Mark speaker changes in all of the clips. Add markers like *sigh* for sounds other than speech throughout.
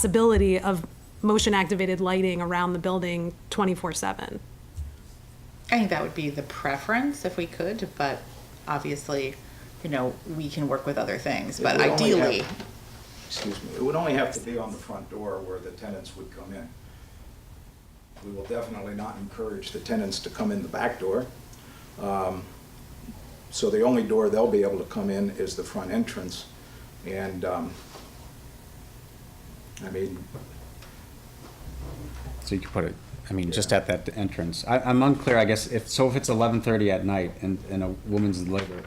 Speaker 1: possibility of motion-activated lighting around the building 24/7.
Speaker 2: I think that would be the preference if we could, but obviously, you know, we can work with other things, but
Speaker 3: It would only
Speaker 2: ideally,
Speaker 3: have- Excuse me, it would only have to be on the front door where the tenants would come in. We will definitely not encourage the tenants to come in the back door. Um, So the only door they'll be able to come in is the front entrance. And, um, I mean,
Speaker 4: So you could put it, I mean, just at that entrance. I, I'm unclear, I guess, if, so if it's eleven thirty at night and, and a woman's in labor,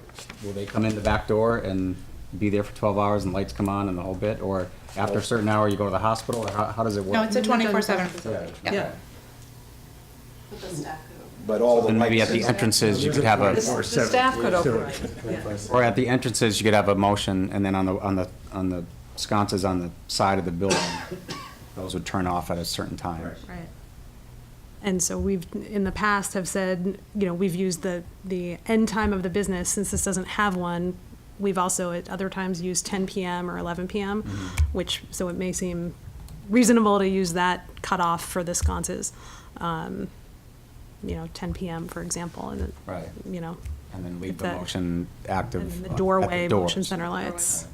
Speaker 4: will they come in the back door and be there for twelve hours and lights come on and the whole bit? Or after a certain hour, you go to the hospital, or how, how does it work?
Speaker 2: no, it's a twenty-four seven facility,
Speaker 4: Yeah.
Speaker 2: yeah.
Speaker 5: With the staff could
Speaker 3: but all the lights...
Speaker 4: Then maybe at the entrances, you could have a,
Speaker 6: Or seven.
Speaker 7: staff could operate.
Speaker 4: or at the entrances, you could have a motion, and then on the, on the, on the sconces on the side of the building, those would turn off at a certain time.
Speaker 2: Right.
Speaker 1: And so we've, in the past, have said, you know, we've used the, the end time of the business, since this doesn't have one. We've also at other times used ten PM or eleven PM, which, so it may seem reasonable to use that cutoff for the sconces. Um, You know, ten PM, for example, and, then,
Speaker 4: Right.
Speaker 1: you know,
Speaker 4: And then leave
Speaker 1: If
Speaker 4: the
Speaker 1: that-
Speaker 4: motion
Speaker 1: and
Speaker 4: active.
Speaker 1: then
Speaker 4: at
Speaker 1: the
Speaker 4: the
Speaker 1: doorway
Speaker 4: doors.
Speaker 1: motion center lights.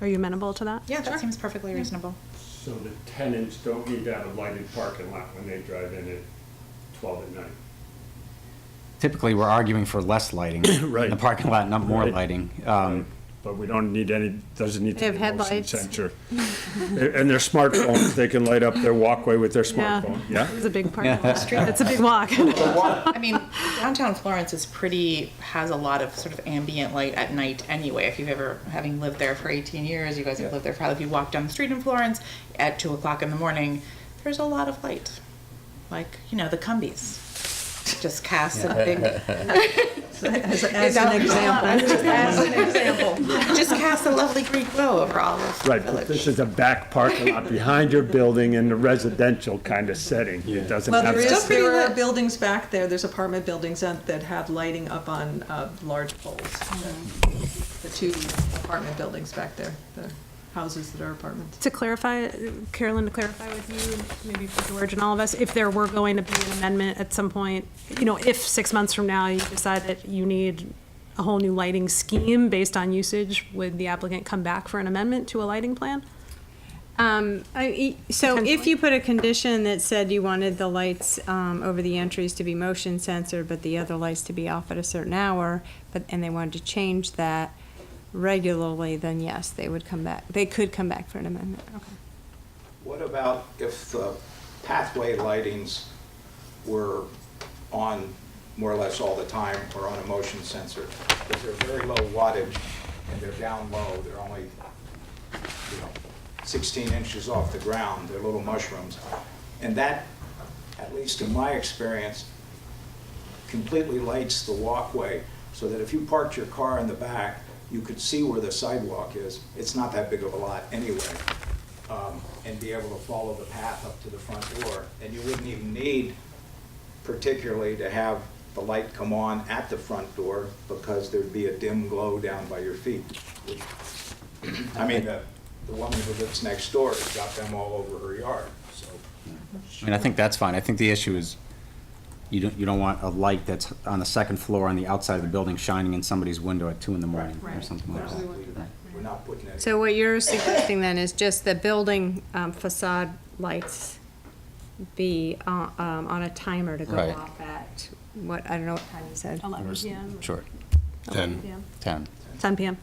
Speaker 1: Are you amenable to that?
Speaker 2: Yeah, that seems perfectly reasonable.
Speaker 6: So the tenants don't need to have a lighted parking lot when they drive in at twelve at night.
Speaker 4: Typically, we're arguing for less lighting. In the
Speaker 6: *coughs* Right.
Speaker 4: parking lot, not more
Speaker 6: Right.
Speaker 4: lighting. Um,
Speaker 6: But we don't need any, doesn't need
Speaker 7: They
Speaker 6: to
Speaker 7: have
Speaker 6: be a motion
Speaker 7: headlights.
Speaker 6: sensor. And their smartphones, they can light up their walkway with their
Speaker 1: Yeah.
Speaker 6: smartphone, yeah?
Speaker 1: It's a big part of the street, it's a big walk. *laughs*
Speaker 2: I mean, downtown Florence is pretty, has a lot of sort of ambient light at night anyway. If you've ever, having lived there for 18 years, you guys have lived there probably, if you walk down the street in Florence at 2 o'clock in the morning, there's a lot of light. Like, you know, the Cumbies just casts a big. *laughs* As an example. As an example. *laughs* Just casts a lovely Greek glow over all of the
Speaker 6: Right, but this
Speaker 2: village.
Speaker 6: is a back parking lot behind your building in a residential kind of setting. It doesn't
Speaker 7: Well,
Speaker 6: have.
Speaker 7: there is,
Speaker 2: pretty
Speaker 7: there are
Speaker 2: lit.
Speaker 7: buildings back there, there's apartment buildings out that have lighting up on uh, large poles. The two apartment buildings back there, the houses that are apartments.
Speaker 1: to clarify, Carolyn, to clarify with you, maybe for George and all of us, if there were going to be an amendment at some point, you know, if six months from now you decide that you need a whole new lighting scheme based on usage, would the applicant come back for an amendment to a lighting plan?
Speaker 8: Um, I- e- so if
Speaker 1: Potentially.
Speaker 8: you put a condition that said you wanted the lights, um, over the entries to be motion censored, but the other lights to be off at a certain hour, but, and they wanted to change that regularly, then yes, they would come back, they could come back for an amendment.
Speaker 3: What about if the pathway lightings were on more or less all the time or on a motion sensor? Because they're very low wattage and they're down low, they're only, you know, 16 inches off the ground, they're little mushrooms. And that, at least in my experience, completely lights the walkway so that if you parked your car in the back, you could see where the sidewalk is. It's not that big of a lot anyway. um, And be able to follow the path up to the front door. And you wouldn't even need particularly to have the light come on at the front door because there'd be a dim glow down by your feet. I mean, the the woman who lives next door has got them all over her yard, so.
Speaker 4: I mean, I think that's fine. I think the issue is, you don't, you don't want a light that's on the second floor on the outside of the building shining in somebody's window at two in the morning or something like that.
Speaker 3: We're not putting it.
Speaker 8: So what you're suggesting then is just the building um, facade lights be uh, um, on a timer to go
Speaker 4: Right.
Speaker 8: off at, what, I don't know what time you said.
Speaker 1: Eleven PM,
Speaker 4: Sure,
Speaker 1: eleven PM,
Speaker 4: ten.
Speaker 1: ten PM,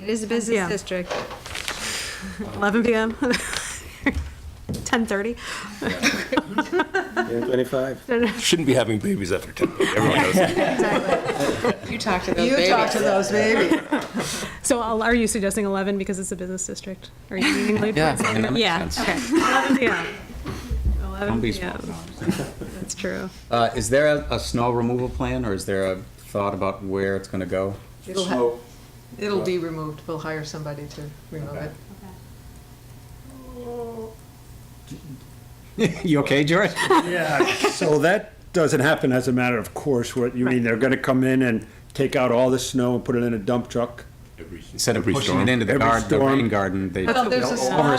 Speaker 8: It is a
Speaker 1: Yeah.
Speaker 8: business district.
Speaker 1: eleven PM. *laughs* Ten thirty.
Speaker 9: Shouldn't be having babies after 10. Everyone knows that.
Speaker 2: You talk to those
Speaker 7: You
Speaker 2: babies.
Speaker 7: talk to those babies.
Speaker 1: So I'll- are you suggesting eleven because it's a business district? Are you leaning late?
Speaker 4: Yeah, I mean, that
Speaker 8: Yeah,
Speaker 4: makes sense. *laughs*
Speaker 8: okay.
Speaker 1: Eleven PM. Eleven
Speaker 4: Don't be
Speaker 1: PM,
Speaker 4: small.
Speaker 1: that's true.
Speaker 4: Uh, is there a, a snow removal plan, or is there a thought about where it's gonna go? *laughs*
Speaker 7: It'll ha-
Speaker 3: Smoke,
Speaker 7: It'll be removed, we'll hire somebody to remove it.
Speaker 4: You okay, George?
Speaker 6: Yeah, so that doesn't happen as a matter of course, what, you mean, they're gonna come in and take out all the snow and put it in a dump truck?
Speaker 4: Instead of
Speaker 9: Every
Speaker 4: pushing
Speaker 9: storm.
Speaker 4: it into the
Speaker 6: Every
Speaker 4: garden, the
Speaker 6: storm.
Speaker 4: rain garden, they.
Speaker 7: Well, there's a
Speaker 4: they'll
Speaker 7: slot.